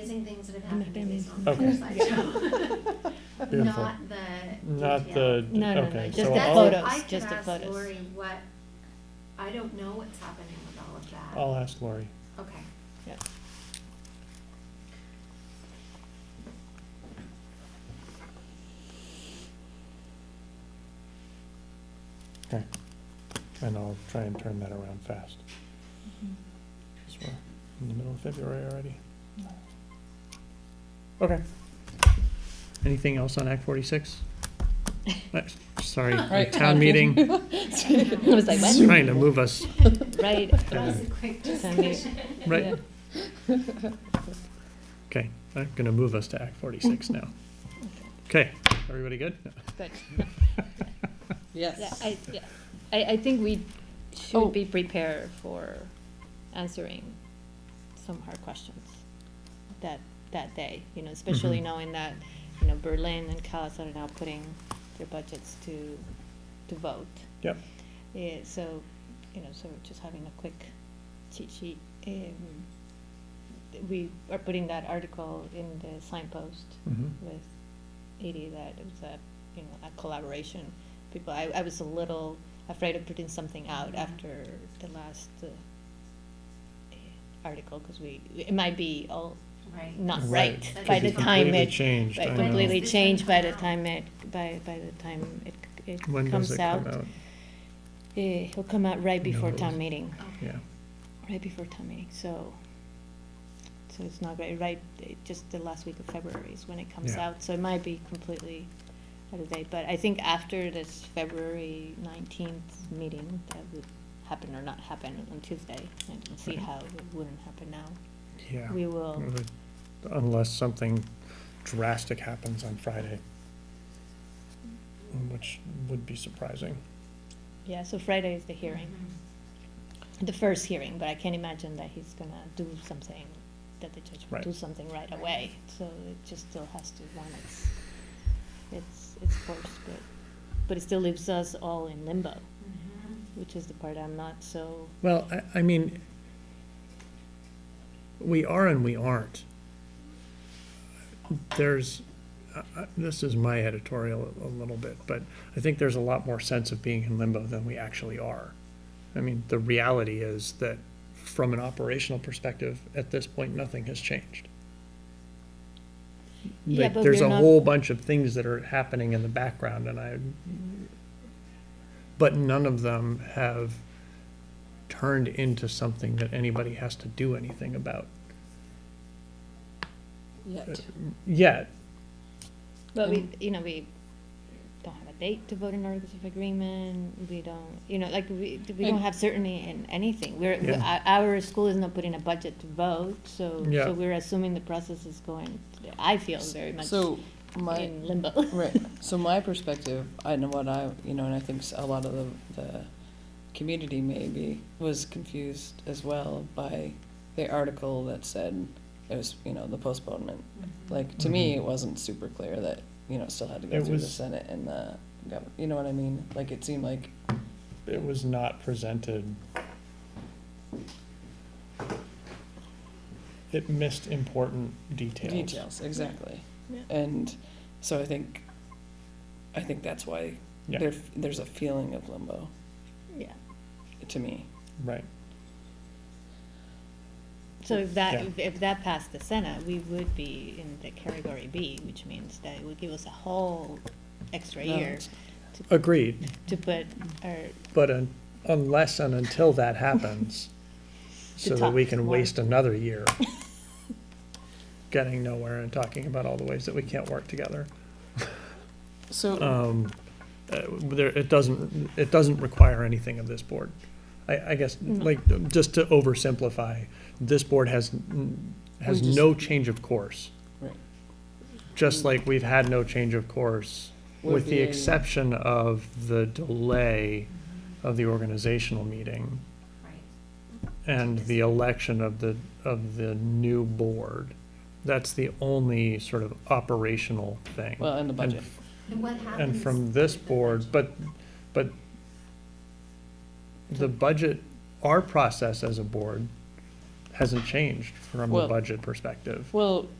it I'm not happened gonna in this mention on the that. slideshow. Beautiful. Not the. Not detail. the, No, no, no, okay, just so the I'll, photo. photos, just the I could ask photos. Lori what, I don't know what's happening with all of that. I'll ask Lori. Okay. Yeah. Okay. And I'll try and turn that around fast. Mm-hmm. 'Cause we're in the middle of February already. Okay. Anything else on Act forty-six? Sorry, Right. town meeting, I was like, what? trying to move us Right. That was a quick Send me- discussion. right yeah. Okay, I'm gonna move us to Act forty-six now. Okay, everybody good? Good. Yeah, Yes. I, yeah. I, I think we Oh. should be prepared for answering some hard questions that, that day, you know, especially Mhm. knowing that, you know, Berlin and Calais are now putting their budgets to, to vote. Yep. Yeah, so, you know, so just having a quick cheat sheet, um, we are putting that article in the signpost Mhm. with Edie that it was a, you know, a collaboration. People, I, I was a little afraid of putting something out after the last uh, eh, article, because we, it might be all Right. not right Right. by Could the be time completely it, Changed, I but know. completely This changed by the didn't come time it, by, by the time it, c- it When does it comes come out. out? Eh, It'll come out right before Knows. town meeting. Okay. Yeah, right before town meeting, so, so it's not great, right, it- just the last week of February is when it comes Yeah. out, so it might be completely out of date, but I think after this February nineteenth meeting, that would happen or not happen on Tuesday, I can see Right. how it wouldn't happen now. yeah. Mm-hmm. We will, Unless something drastic happens on Friday, which would be surprising. yeah, so Friday is the hearing, Mm-hmm. the first hearing, but I can't imagine that he's gonna do something, that the judge will Right. do something right away, so it just still has to run its, its, its course, but, but it still leaves us all in limbo, Mhm. which is the part I'm not so, Well, I, I mean, we are and we aren't. There's, I- I- this is my editorial a little bit, but I think there's a lot more sense of being in limbo than we actually are. I mean, the reality is that from an operational perspective, at this point, nothing has changed. Yeah, Like, but there's we're a not- whole bunch of things that are happening in the background and I, but none of them have turned into something that anybody has to do anything about Yet. yet. but we, you know, we don't have a date to vote in articles of agreement, we don't, you know, like, we, we don't And- have certainty in anything, we're, we- Yeah. our, our school is not putting a budget to vote, so, Yeah. so we're assuming the process is going, I feel very much So my, in limbo. right, so my perspective, I know what I, you know, and I think s- a lot of the, the community maybe was confused as well by the article that said it was, you know, the postponement. Mm-hmm. Like, to me, Mhm. it wasn't super clear that, you know, it still had to It go through the was- Senate and the, gov- you know what I mean? Like, it seemed like It was not presented. It missed important details. Details, exactly. Yeah. And so I think, I think that's why Yeah. there, there's a feeling of limbo Yeah, to me. Right, so if that, Yeah. if- if that passed the Senate, we would be in the category B, which means that it would give us a whole extra No, year it's- agreed, to put our, but un- unless and until that happens, so that we talk can more. waste another year getting nowhere and talking about all the ways that we can't work together. So, uh, there, it doesn't, it doesn't require anything of this board. I, I guess, Mm. like, just to oversimplify, this board has, n- has We just- no change of course. Right. Just like we've had no change of course, With with the the- exception of the delay of the organizational meeting Right. and the election of the, of the new board. That's the only sort of operational thing. well, and the budget. And what happens? And from this with the board, but, but the budget, our process as a board hasn't changed from a Well- budget perspective. Well,